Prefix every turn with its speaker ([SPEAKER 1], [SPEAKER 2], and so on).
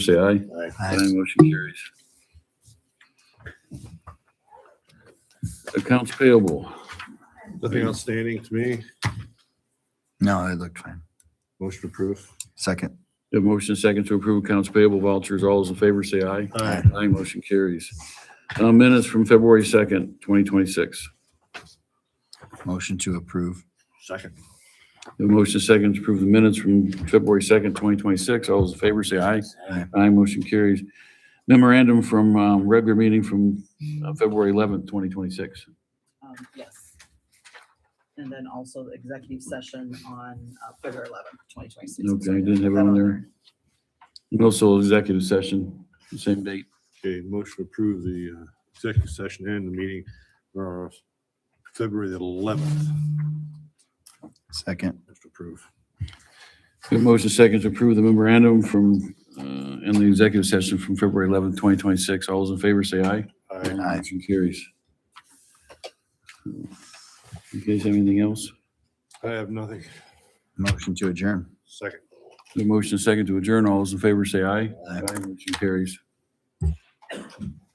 [SPEAKER 1] say aye.
[SPEAKER 2] Aye.
[SPEAKER 1] Motion carries. Accounts payable.
[SPEAKER 3] Nothing outstanding to me.
[SPEAKER 2] No, it looked fine.
[SPEAKER 3] Motion approved.
[SPEAKER 2] Second.
[SPEAKER 1] The motion second to approve accounts payable vouchers. All those in favor say aye.
[SPEAKER 3] Aye.
[SPEAKER 1] Aye, motion carries. Uh, Minutes from February 2nd, 2026.
[SPEAKER 2] Motion to approve.
[SPEAKER 3] Second.
[SPEAKER 1] The motion second to approve the minutes from February 2nd, 2026. All those in favor say aye.
[SPEAKER 2] Aye.
[SPEAKER 1] Aye, motion carries. Memorandum from um, regular meeting from uh, February 11th, 2026.
[SPEAKER 4] Um, yes. And then also the executive session on uh, February eleventh, twenty twenty-six.
[SPEAKER 1] Okay, didn't have it on there. Also executive session, same date.
[SPEAKER 3] Okay, motion to approve the uh, executive session and the meeting for February the eleventh.
[SPEAKER 2] Second.
[SPEAKER 3] Motion approved.
[SPEAKER 1] We have motion second to approve the memorandum from, uh, and the executive session from February 11th, 2026. All those in favor say aye.
[SPEAKER 3] Aye.
[SPEAKER 2] Aye.
[SPEAKER 1] Motion carries. You guys have anything else?
[SPEAKER 3] I have nothing.
[SPEAKER 2] Motion to adjourn.
[SPEAKER 3] Second.
[SPEAKER 1] The motion second to adjourn. All those in favor say aye.
[SPEAKER 2] Aye.
[SPEAKER 1] Motion carries.